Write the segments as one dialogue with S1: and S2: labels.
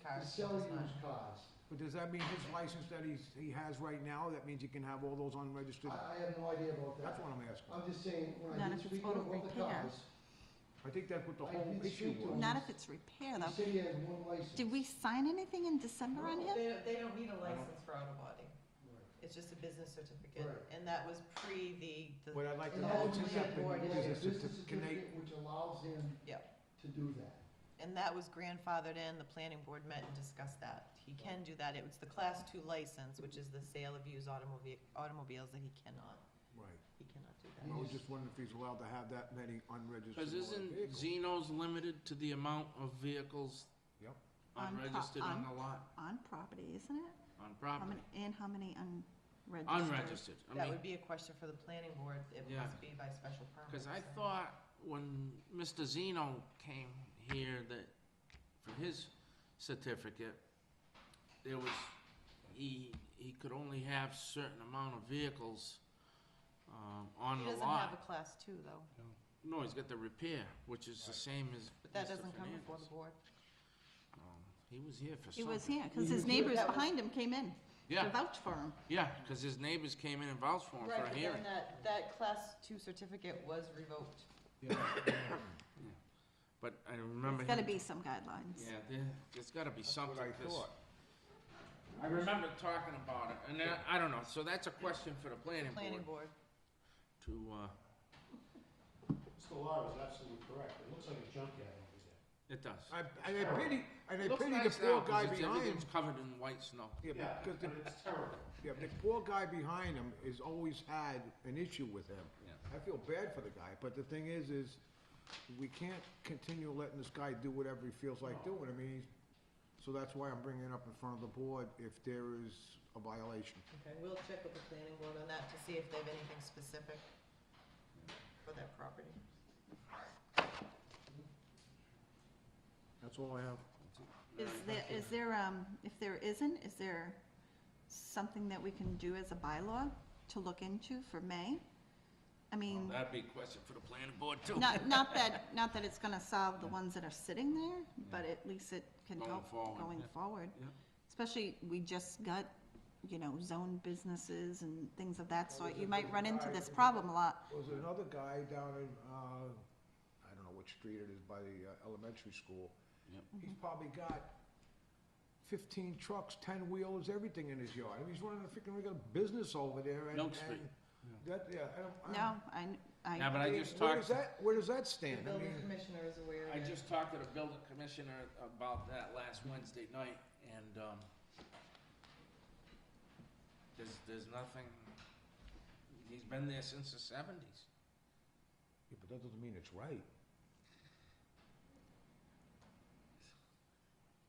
S1: to
S2: That's-
S1: sell
S2: that's
S1: used
S2: fine.
S1: cars.
S3: But does that mean his license that he's, he has right now, that means he can have all those unregistered?
S1: I, I have no idea about that.
S3: That's what I'm asking.
S1: I'm just saying, when I
S2: Not
S1: did
S2: if it's
S1: speak with
S2: auto
S1: all the
S2: repair.
S1: cars,
S3: I think that's what the
S1: I
S3: whole
S1: did
S3: issue
S1: speak to
S3: was.
S1: him.
S2: Not if it's repair,
S1: he
S2: though.
S1: said he has one license.
S2: Did we sign anything in December on him?
S4: They, they don't need a license for auto body. It's just a business certificate,
S1: Right.
S4: and that was pre the,
S3: What
S4: the,
S3: I'd like to
S1: And
S4: the
S3: know
S1: all
S4: whole
S3: is
S1: he
S3: if
S1: had
S4: planning
S3: that
S4: board
S1: was a
S3: business
S1: business
S3: certificate, can they,
S1: certificate which allows him
S4: yeah,
S1: to do that.
S4: and that was grandfathered in, the planning board met and discussed that. He can do that, it was the class two license, which is the sale of used automobile, automobiles, that he cannot,
S3: right.
S4: he cannot do
S3: I
S4: that.
S3: was just wondering if he's allowed to have that many unregistered
S5: Because isn't
S3: vehicles.
S5: Zeno's limited to the amount of vehicles
S3: Yep.
S2: On pro-
S5: unregistered on
S2: on-
S5: the lot,
S2: On property, isn't it?
S5: on
S2: How
S5: property?
S2: many, and how many unregistered?
S5: Unregistered, I
S4: That
S5: mean,
S4: would be a question for the planning board, it
S5: Mm-hmm. Yeah.
S4: must be by special permit.
S5: because I
S4: so.
S5: thought when Mr. Zeno came here that, for his certificate, there was, he, he could only have certain amount of vehicles, um, on
S4: He
S5: the
S4: doesn't have a
S5: lot.
S4: class two, though,
S5: No, he's got the repair, which is the same as
S4: but that
S5: Mr.
S4: doesn't come before the
S5: Fernandez.
S4: board.
S5: Um, He was here for
S2: It
S5: something.
S2: was here, because
S1: You
S2: his
S1: did
S2: neighbors
S4: that was-
S2: behind him came in to
S5: Yeah,
S2: vouch for him.
S5: yeah, because his neighbors came in and vouched for him for
S4: Right,
S5: a
S4: but
S5: hearing.
S4: then that, that class two certificate was revoked.
S5: But I remember.
S2: There's gotta
S5: him-
S2: be some guidelines.
S5: Yeah, there, there's gotta be something.
S3: What I
S5: 'cause
S3: thought.
S5: I remember talking about it, and I, I don't know, so that's a question for the planning
S4: Planning
S5: board
S4: board.
S5: to, uh,
S6: Mr. Lara is absolutely correct. It looks like a junkyard over there.
S5: it does.
S3: I, and I pity, and I
S5: Looks
S3: pity the
S5: nice now
S3: poor
S5: 'cause
S3: guy
S5: it's-
S3: behind him.
S5: Everything's covered in white snow.
S3: Yeah, because the,
S6: But it's terrible.
S3: yeah, the poor guy behind him has always had an issue with him.
S5: Yeah.
S3: I feel bad for the guy, but the thing is, is we can't continue letting this guy do whatever he feels like doing. I mean, he's, so that's why I'm bringing it up in front of the board if there is a violation.
S4: Okay, we'll check with the planning board on that to see if they have anything specific for that property.
S3: That's all I have.
S2: Is there, is there, um, if there isn't, is there something that we can do as a bylaw to look into for May? I
S5: Well,
S2: mean,
S5: That'd be a question for the planning board too.
S2: not, not that, not that it's gonna solve the ones that are sitting there, but at least it can
S5: Going
S2: help
S5: forward,
S2: going
S5: yeah.
S2: forward.
S5: Yeah.
S2: Especially, we just got, you know, zone businesses and things of that sort. You might run into this problem a lot.
S3: There was another guy down in, uh, I don't know what street it is by the uh, elementary school.
S5: Yep.
S3: He's probably got fifteen trucks, ten wheels, everything in his yard. I mean, he's running a freaking regular business over there and.
S5: Milk Street.
S3: and That, yeah, I don't. I don't-
S2: No, I,
S5: Yeah, but
S2: I,
S5: I
S3: mean,
S5: just
S3: Where
S5: talked,
S3: does that, where does that
S4: The
S3: stand? I
S4: building
S3: mean,
S4: commissioner is aware of
S5: I
S4: it.
S5: just talked to the building commissioner about that last Wednesday night, and, um, there's, there's nothing, he's been there since the seventies.
S3: yeah, but that doesn't mean it's right.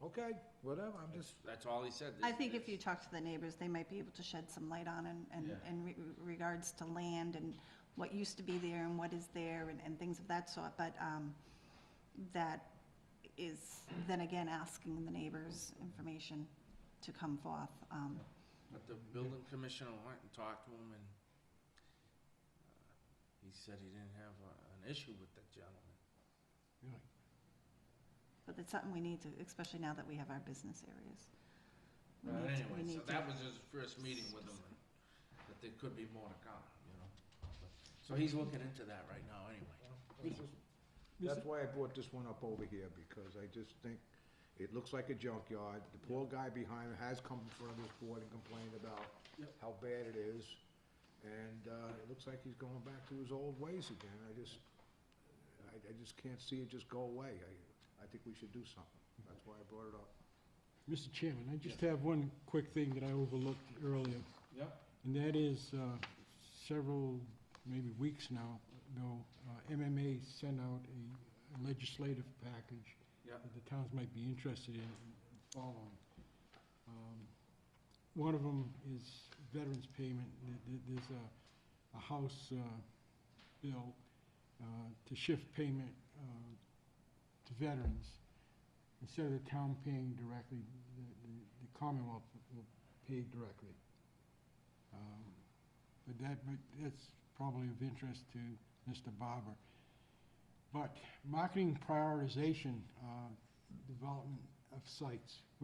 S3: Okay, whatever, I'm just,
S5: That's all he said.
S2: I think if you talk to the neighbors, they might be able to shed some light on and, and,
S5: Yeah.
S2: and re- regards to land and what used to be there and what is there and, and things of that sort, but, um, that is, then again, asking the neighbors' information to come forth, um,
S5: But the building commissioner went and talked to him, and uh, he said he didn't have a- an issue with the gentleman.
S2: but it's something we need to, especially now that we have our business areas. We need to-
S5: But
S2: we
S5: anyway, so
S2: need to-
S5: that was his first meeting with him, and that there could be more to come, you know? So he's looking into that right now, anyway.
S3: that's why I brought this one up over here, because I just think it looks like a junkyard. The poor guy behind has come in front of this board and complained about
S5: Yep.
S3: how bad it is. And, uh, it looks like he's going back to his old ways again. I just, I, I just can't see it just go away. I, I think we should do something. That's why I brought it up.
S7: Mr. Chairman, I just have one quick thing that I overlooked earlier,
S5: Yep.
S7: and that is uh, several, maybe weeks now, ago, uh, MMA sent out a legislative package
S5: Yep.
S7: that the towns might be interested in following. Um, One of them is veterans payment. Th- th- There's a, a House uh, bill uh, to shift payment uh, to veterans. Instead of the town paying directly, the- the the Commonwealth will pay directly. Um, But that, but that's probably of interest to Mr. Barber. But marketing prioritization, uh, development of sites.